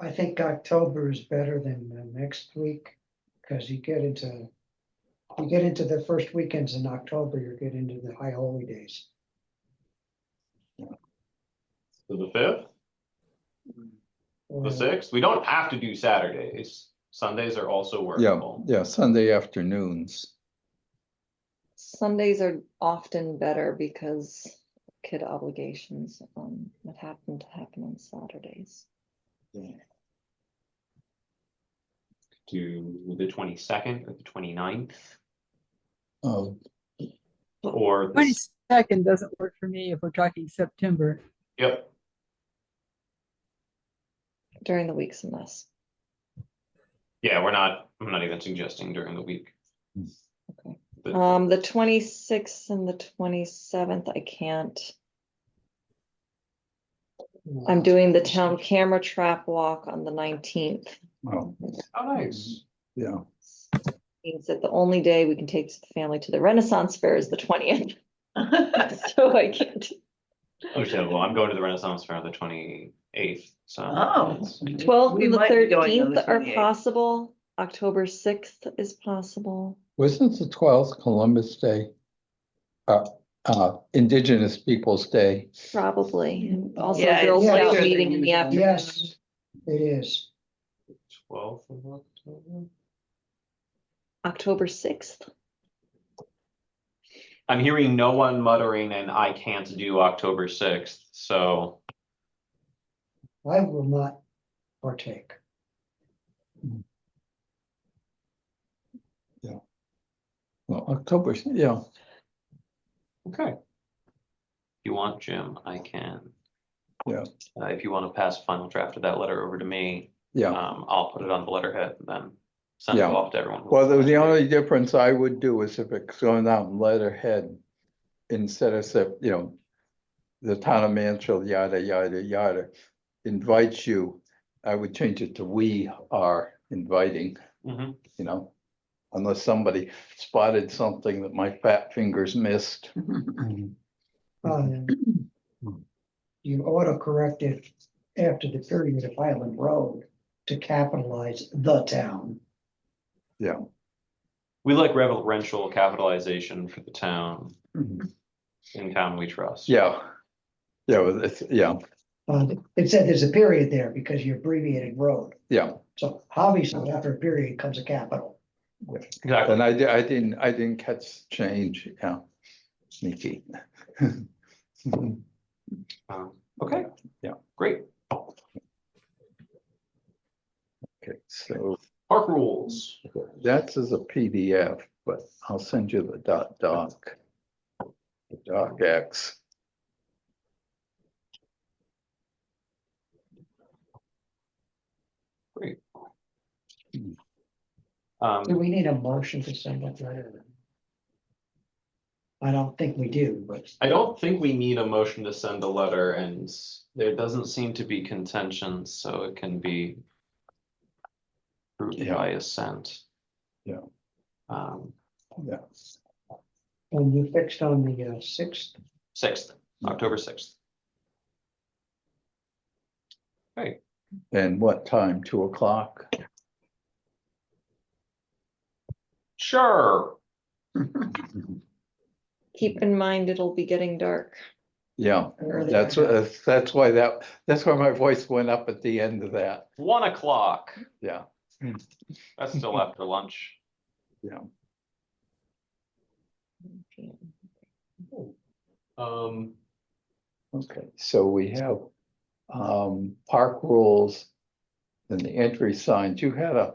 I think October is better than uh, next week, because you get into, you get into the first weekends in October, you get into the high holy days. So the fifth, Or- the Mm. sixth, we don't have to do Saturdays. Sundays are also Yeah, workable. yeah, Sunday afternoons. Sundays are often better because kid obligations, um, that happen to happen on Saturdays. Do the twenty-second or the 29th Oh, or, the s- Twenty-second doesn't work for me if we're talking September. yep, During the week's a mess. yeah, we're not, I'm not even suggesting during the week. Okay. But- Um, the twenty-sixth and the twenty-seventh, I can't. I'm doing the town camera trap walk on the nineteenth. well, Oh, nice. yeah, Means that the only day we can take the family to the Renaissance Fair is the twentieth. So I can't, Understandable. I'm going to the Renaissance Fair on the twenty-eighth, so. Oh. that's- twelfth We and the might be going on thirteenth the are 28th. possible, October sixth is possible. wasn't the twelfth Columbus Day? Uh, uh, Indigenous Peoples' Day, Probably. and Also, Yeah, Girl it's- Yeah, Scout it's- meeting in the afternoon. Yes, it is. Twelfth of October. October sixth. I'm hearing no one muttering and I can't do October sixth, so I will not partake. well, October, yeah, Okay. If you want, Jim, I can. Yeah. Uh, if you want to pass final draft of that letter over to me, yeah. um, I'll put it on the letterhead and then send it Oh. Yeah. off to everyone. who Well, the, wants the to read it. only difference I would do is if it's going out in letterhead instead of, sep- you know, the town of Mansfield, yada, yada, yada, invites you, I would change it to we are inviting. Mhm. you know? Unless somebody spotted something that my fat fingers missed. Um, You auto correct it after the period of Highland Road to capitalize the town. We like reverential capitalization for the town, in town we trust. Yeah. Yeah, well, it's, yeah, Uh, it said there's a period there because you abbreviated road. yeah. So obviously after a period comes a capital. Exactly. And I, di- I didn't, I didn't catch change, yeah. Sneaky. Um, Okay. Yeah. Great. Okay, so Park rules. that's as a PDF, but I'll send you the dot doc. The Doc X. Do Um, we need a motion to send that letter? I don't think we do, but I don't think we need a motion to send a letter and there doesn't seem to be contention, so it can be approved Yeah. by assent. Yeah. Um, Yeah. when you fixed on the uh, sixth, sixth, Hmm. October sixth. And what time? Two o'clock? Sure. Keep in mind, it'll be getting dark. Yeah, Early. that's, uh, that's why that, that's why my voice went up at the end of that. One o'clock. Yeah. That's still after lunch. Um, Okay, so we have um park rules and the entry signs. You had a.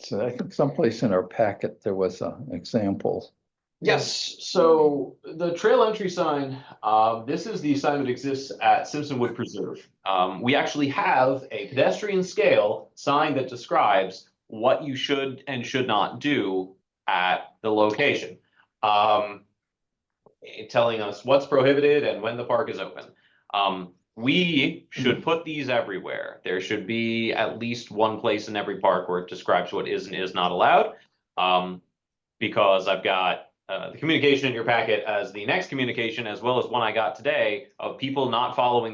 So I think someplace in our packet, there was an example. Yes, so the trail entry sign, uh, this is the sign that exists at Simpson Wood Preserve. Um, we actually have a pedestrian scale sign that describes what you should and should not do at the location. Um, eh, telling us what's prohibited and when the park is open. Um, we should put these everywhere. There should be at least one place in every park where it describes what is and is not allowed. Um, because I've got uh, the communication in your packet as the next communication, as well as one I got today of people not following